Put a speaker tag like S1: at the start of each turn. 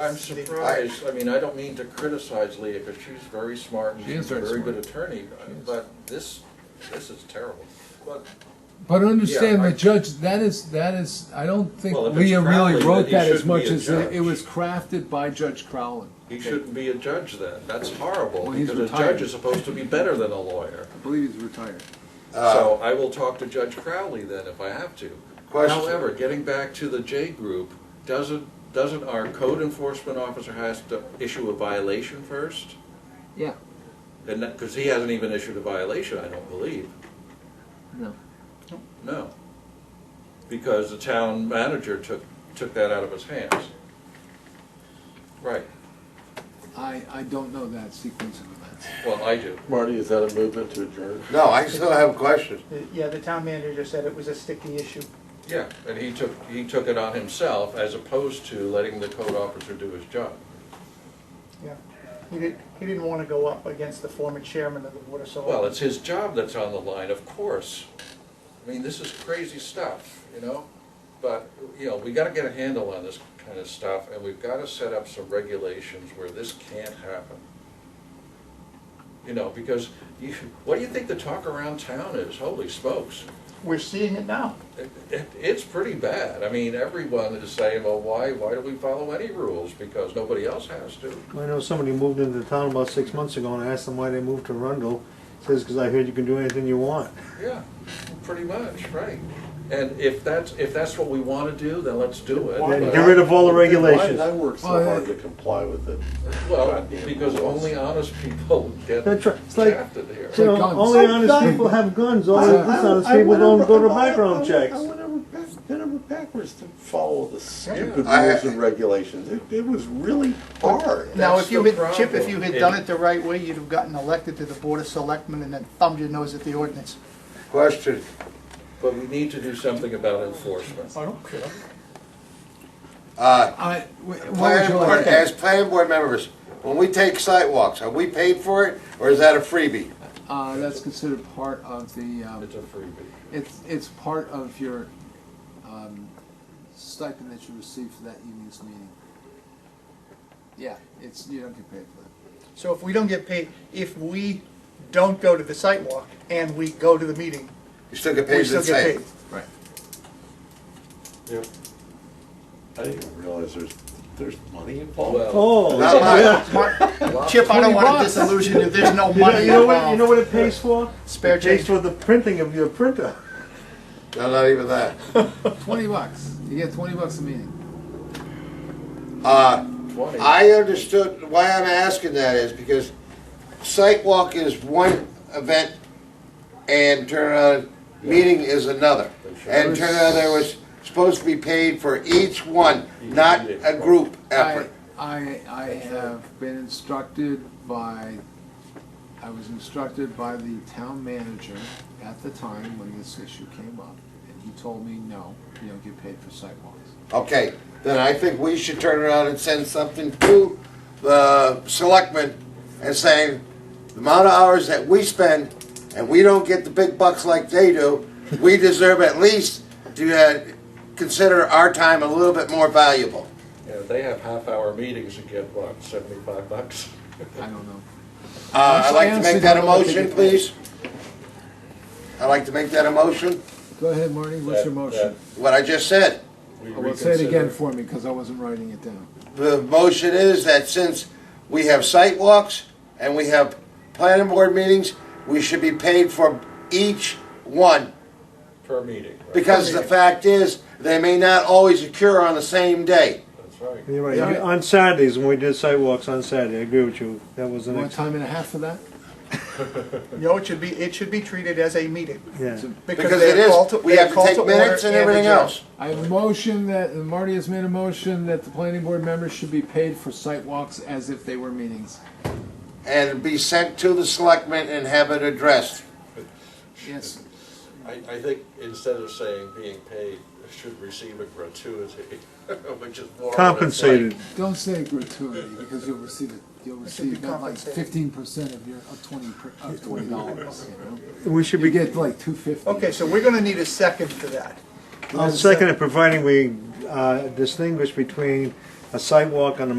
S1: I'm surprised, I mean, I don't mean to criticize Leah, because she's very smart and
S2: She is
S1: she's a
S2: very
S1: very good
S2: smart.
S1: attorney,
S2: She is.
S1: but this, this is terrible. But,
S2: But understand,
S1: Yeah, I-
S2: the judge, that is, that is, I don't think
S3: Well, if it's
S2: Leah really
S3: Crowley,
S2: wrote
S3: then he
S2: that as
S3: shouldn't
S2: much
S3: be a
S2: as, it it
S3: judge.
S2: was crafted by Judge Crowley.
S1: He shouldn't be a judge then, that's horrible,
S2: Well, he's
S1: because a
S2: retired.
S1: judge is supposed to be better than a lawyer.
S2: I believe he's retired.
S1: So I will talk to Judge Crowley then if I have to.
S4: Question.
S1: However, getting back to the J group, doesn't, doesn't our code enforcement officer has to issue a violation first?
S2: Yeah,
S1: And that, because he hasn't even issued a violation, I don't believe.
S2: no.
S1: No. Because the town manager took, took that out of his hands. Right,
S2: I, I don't know that sequence of events.
S1: well, I do.
S5: Marty, is that a movement to adjourn?
S4: No, I still have questions.
S6: The- Uh, Yeah, the town manager said it was a sticky issue.
S1: Yeah, and he took, he took it on himself as opposed to letting the code officer do his job.
S6: Yeah. He didn't, he didn't want to go up against the former chairman of the board of selectmen.
S1: Well, it's his job that's on the line, of course. I mean, this is crazy stuff, you know? But, you know, we gotta get a handle on this kind of stuff, and we've gotta set up some regulations where this can't happen. You know, because you, what do you think the talk around town is? Holy smokes.
S6: We're seeing it now.
S1: It, it, it's pretty bad. I mean, everyone is saying, well, why, why do we follow any rules? Because nobody else has to.
S7: I know somebody moved into town about six months ago and I asked them why they moved to Rundle. Says, because I heard you can do anything you want.
S1: Yeah, pretty much, right. And if that's, if that's what we want to do, then let's do it.
S7: Then get rid of all the
S5: Why did
S7: regulations.
S5: I work so
S2: Well,
S5: hard
S2: yeah.
S5: to comply with it?
S1: Well,
S5: Goddamn
S1: because
S5: rules.
S1: only honest people get
S7: That's right. It's like-
S1: shafted here.
S7: You know,
S2: guns.
S7: only
S2: Like
S7: honest
S2: guns.
S7: people have guns, all
S2: I-
S7: the
S2: I-
S7: dishonest
S5: I
S7: people
S5: went
S7: don't
S5: over-
S7: go to
S5: I- I-
S7: background checks.
S5: I went over, back- bent over backwards to follow the stupid
S4: I-
S5: rules and regulations. It, it was really hard.
S6: Now,
S1: That's
S6: if you
S1: the
S6: had, Chip, if
S1: problem.
S6: you had done it the right way, you'd have gotten elected to the board of selectmen and then thumbed your nose at the ordinance.
S4: Question.
S1: But we need to do something about enforcement.
S6: I don't care.
S4: Uh,
S2: I, wh- what would
S4: planning
S2: you
S4: board,
S2: like?
S4: as planning board members, when we take sidewalks, are we paid for it or is that a freebie?
S2: Uh, that's considered part of the, um,
S1: It's a freebie.
S2: it's, it's part of your, um, stipend that you receive for that evening's meeting. Yeah, it's, you don't get paid for that.
S6: So if we don't get paid, if we don't go to the site walk and we go to the meeting,
S4: You still get
S6: we
S4: paid
S6: still
S4: the
S6: get
S4: same.
S6: paid.
S2: Right.
S5: I didn't even realize there's, there's money involved.
S1: Well,
S7: Oh,
S4: Not much.
S7: yeah.
S6: Chip, I don't want to
S2: 20 bucks.
S6: disillusion you, there's no
S7: You know,
S6: money
S7: you know what, you know
S6: involved.
S7: what it pays for?
S6: Spare
S7: It pays
S6: change.
S7: for the printing of your printer.
S4: No, not even that.
S2: Twenty bucks, you get twenty bucks a meeting.
S4: Uh,
S1: twenty,
S4: I understood, why I'm asking that is because sidewalk is one event and turnaround meeting is another. And turnaround, there was supposed to be paid for each one, not a group
S2: I,
S4: effort.
S2: I, I have been instructed by, I was instructed by the town manager at the time when this issue came up, and he told me, no, you don't get paid for sidewalks.
S4: Okay, then I think we should turn around and send something to the selectmen and saying, the amount of hours that we spend, and we don't get the big bucks like they do, we deserve at least to uh, consider our time a little bit more valuable.
S1: you know, they have half-hour meetings and get, what, seventy-five bucks?
S2: I don't know.
S4: Uh, I'd like to make that a
S2: Actually, I honestly
S4: motion,
S2: don't think
S4: please. I'd like to make that a motion,
S2: Go ahead, Marty, what's your
S1: That-
S2: motion?
S4: what I just said.
S1: that we
S2: Well, say it again
S1: reconsider.
S2: for me, because I wasn't writing it down.
S4: The motion is that since we have site walks and we have planning board meetings, we should be paid for each one.
S1: Per meeting, right?
S4: Because the fact is, they may not always occur on the same day.
S1: That's right.
S7: You're
S2: Yeah.
S7: right, on Saturdays, when we did sidewalks on Saturday, I agree with you, that was
S2: You
S7: an,
S2: want
S7: ex-
S2: time and a half for that?
S6: No, it should be, it should be treated as a meeting.
S7: yeah.
S4: Because
S6: they're
S4: it is,
S6: called to-
S4: we
S6: they're
S4: have to
S6: called
S4: take
S6: order
S4: minutes and everything
S6: adjourn.
S4: else.
S2: I have a motion that, and Marty has made a motion that the planning board members should be paid for sidewalks as if they were meetings.
S4: And be sent to the selectmen and have it addressed.
S2: Yes,
S1: I, I think instead of saying being paid, should receive a gratuity, which is more. what it's like.
S7: Compensated.
S2: Don't say gratuity, because you'll receive it, you'll
S6: should be
S2: receive not like
S6: compensated.
S2: fifteen percent of your, of twenty, per- of twenty dollars, you know?
S7: We should
S2: You
S7: be,
S2: get like two fifty.
S6: Okay, so we're gonna need a second for that.
S7: I'll second it, providing we uh, distinguish between a sidewalk on a